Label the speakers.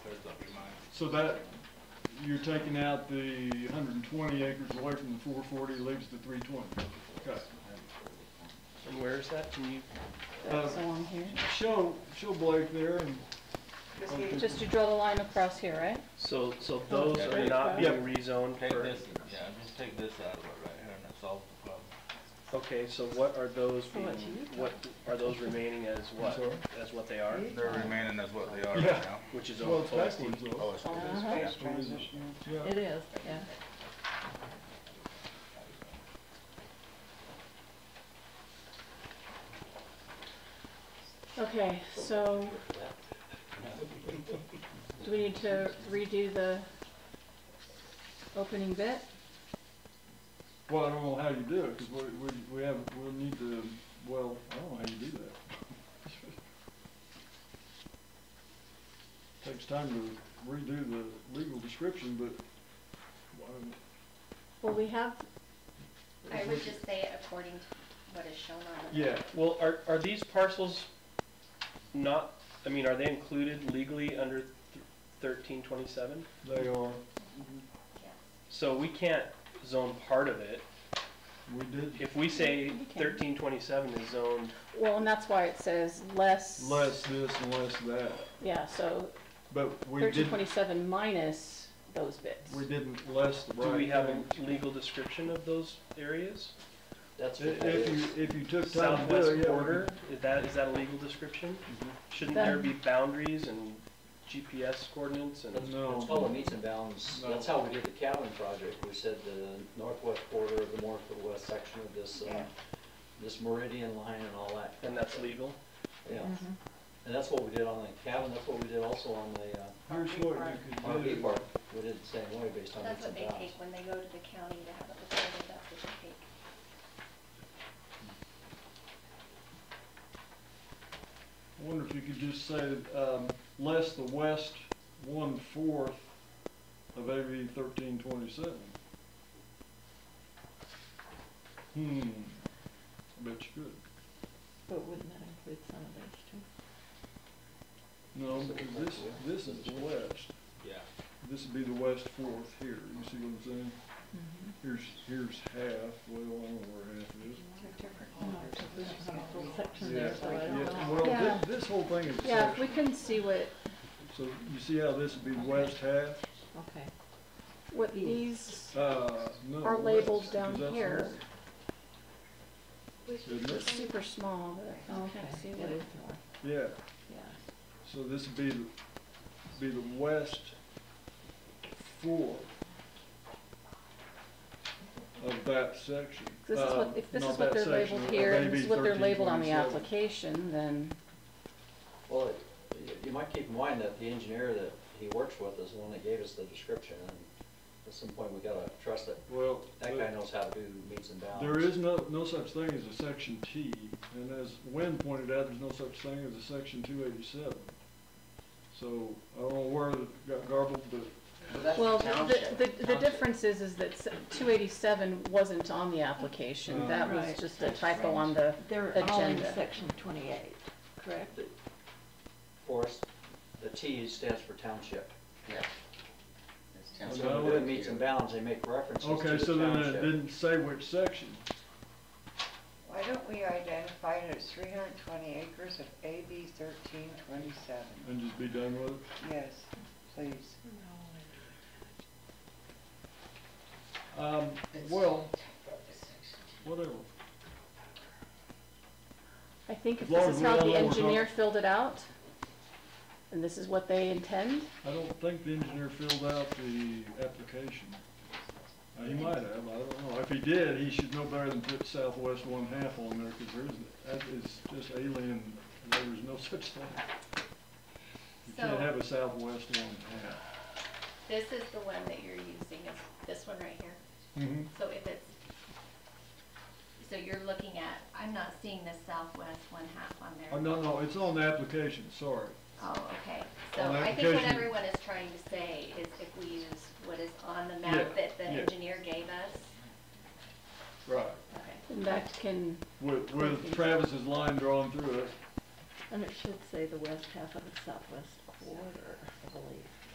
Speaker 1: So that, you're taking out the hundred and twenty acres away from the four forty, leaves the three twenty. Okay.
Speaker 2: And where is that? Can you,
Speaker 1: Uh,
Speaker 3: That's along here.
Speaker 1: Show, show Blake there and. Okay.
Speaker 3: Just to draw the line across here, right?
Speaker 2: so, so those are not
Speaker 1: Yeah.
Speaker 2: being rezoned
Speaker 4: Take
Speaker 2: for,
Speaker 4: this, yeah, just take this out of it right here and it solves the problem.
Speaker 2: okay, so what are those
Speaker 3: For
Speaker 2: being,
Speaker 3: what you
Speaker 2: what, are those remaining as what?
Speaker 1: sorry?
Speaker 2: As what they are,
Speaker 4: They're remaining as what they are
Speaker 1: right Yeah.
Speaker 4: now.
Speaker 2: which is
Speaker 1: Well,
Speaker 2: over
Speaker 1: it's backwards though.
Speaker 4: it's
Speaker 3: Uh-huh.
Speaker 1: Yeah.
Speaker 3: It is, yeah. Okay, so, do we need to redo the opening bit?
Speaker 1: Well, I don't know how you do it, cause we, we, we have, we'll need to, well, I don't know how you do that. Takes time to redo the legal description, but, um,
Speaker 3: Well, we have,
Speaker 5: I would just say it according to what is shown on the.
Speaker 1: yeah,
Speaker 2: Well, are, are these parcels not, I mean, are they included legally under thirteen twenty-seven?
Speaker 1: they are,
Speaker 2: So we can't zone part of it.
Speaker 1: we did
Speaker 2: If we say
Speaker 3: We can.
Speaker 2: thirteen twenty-seven is zoned,
Speaker 3: well, and that's why it says less.
Speaker 1: less this and less that,
Speaker 3: Yeah, so
Speaker 1: but we
Speaker 3: thirteen
Speaker 1: didn't,
Speaker 3: twenty-seven minus those bits.
Speaker 1: we didn't less the right.
Speaker 2: do we have a
Speaker 1: thing.
Speaker 2: legal description of those areas?
Speaker 6: That's
Speaker 1: I-
Speaker 6: what that
Speaker 1: If
Speaker 6: is.
Speaker 1: you, if you took time to do it,
Speaker 2: southwest
Speaker 1: yeah, we
Speaker 2: border, is that, is that a legal description? Shouldn't
Speaker 3: That-
Speaker 2: there be boundaries and GPS coordinates and?
Speaker 6: That's
Speaker 1: no.
Speaker 6: that's all the meets and bounds,
Speaker 1: No.
Speaker 6: that's how we did the Calvin project, we said the northwest border of the northwest section of this, uh, this meridian line and all that.
Speaker 2: And that's legal?
Speaker 6: Yeah,
Speaker 3: Mm-hmm.
Speaker 6: and that's what we did on the Calvin, that's what we did also on the, uh,
Speaker 1: could- Here's what you could
Speaker 6: RV
Speaker 1: do.
Speaker 6: park, we did the same way based on meets
Speaker 5: That's what
Speaker 6: and
Speaker 5: they
Speaker 6: bounds.
Speaker 5: take when they go to the county to have it recorded, that's what they take.
Speaker 1: I wonder if you could just say, um, less the west one-fourth of AB thirteen twenty-seven. Hmm, I bet you could.
Speaker 3: But wouldn't that include some of those
Speaker 1: No,
Speaker 3: too?
Speaker 1: because this, this is the west.
Speaker 6: Yeah.
Speaker 1: This would be the west fourth here, you see what I'm saying? Here's, here's half, well, I don't know where half is.
Speaker 3: Mm-hmm. oh.
Speaker 1: Yeah, well,
Speaker 3: Yeah.
Speaker 1: thi- this whole thing is a
Speaker 3: Yeah, if we
Speaker 1: section.
Speaker 3: can see what,
Speaker 1: So you see how this would be west half?
Speaker 3: okay, what these,
Speaker 1: Uh, no.
Speaker 3: Are labeled
Speaker 1: west,
Speaker 3: down
Speaker 1: 'cause that's
Speaker 3: here.
Speaker 1: north. Isn't
Speaker 3: are
Speaker 1: it?
Speaker 3: super small, but I can't see what.
Speaker 1: Yeah.
Speaker 3: yeah.
Speaker 1: So this would be, the- be the west four of that section.
Speaker 3: This is
Speaker 1: Um,
Speaker 3: what, if this
Speaker 1: not
Speaker 3: is what
Speaker 1: that
Speaker 3: they're
Speaker 1: section, uh,
Speaker 3: labeled
Speaker 1: of
Speaker 3: here, and this
Speaker 1: AB
Speaker 3: is what they're labeled on the
Speaker 1: 1327.
Speaker 3: application, then,
Speaker 6: Well, it- you- you might keep in mind that the engineer that he works with is the one that gave us the description, and at some point, we gotta trust that,
Speaker 1: Well,
Speaker 6: that guy
Speaker 1: the-
Speaker 6: knows how to do meets and bounds.
Speaker 1: there is no, no such thing as a section T, and as Wynn pointed out, there's no such thing as a section two eighty-seven. So, I don't know where it got garbled, but
Speaker 3: well, the, the, the difference is, is that two eighty-seven wasn't on the application,
Speaker 1: Uh,
Speaker 3: that was
Speaker 7: Right.
Speaker 3: just a typo on the,
Speaker 7: They're all in
Speaker 3: Agenda.
Speaker 7: section twenty-eight, correct?
Speaker 6: Forest, the T stands for township.
Speaker 1: township.
Speaker 6: So when they're doing meets and bounds, they make references to
Speaker 1: Okay,
Speaker 6: the
Speaker 1: so then it
Speaker 6: township.
Speaker 1: didn't say which section.
Speaker 8: Why don't we identify it as three hundred and twenty acres of AB thirteen twenty-seven?
Speaker 1: And just be done with it?
Speaker 8: Yes, please.
Speaker 1: Um, well, whatever.
Speaker 3: I think if
Speaker 1: As long
Speaker 3: this
Speaker 1: as
Speaker 3: is
Speaker 1: we
Speaker 3: how
Speaker 1: all know
Speaker 3: the
Speaker 1: we're
Speaker 3: engineer
Speaker 1: not-
Speaker 3: filled it out, and this is what they intend,
Speaker 1: I don't think the engineer filled out the application. Uh, He might have, I don't know. If he did, he should know better than put southwest one half on there, because there is, that is just alien, there is no such thing. You can't
Speaker 5: So-
Speaker 1: have a southwest one half.
Speaker 5: This is the one that you're using, is this one right here.
Speaker 1: Mm-hmm.
Speaker 5: So if it's, so you're looking at, I'm not seeing the southwest one half on there.
Speaker 1: Oh, no, no, it's on the application, sorry.
Speaker 5: Oh, okay. So
Speaker 1: On the
Speaker 5: I think what
Speaker 1: application.
Speaker 5: everyone is trying to say is if we use what is on the
Speaker 1: Yeah,
Speaker 5: map that the
Speaker 1: yeah.
Speaker 5: engineer gave us.
Speaker 1: Right.
Speaker 5: Okay.
Speaker 3: and that can,
Speaker 1: With, with Travis's line drawn through it.
Speaker 7: And it should say the west half of the southwest border, I believe.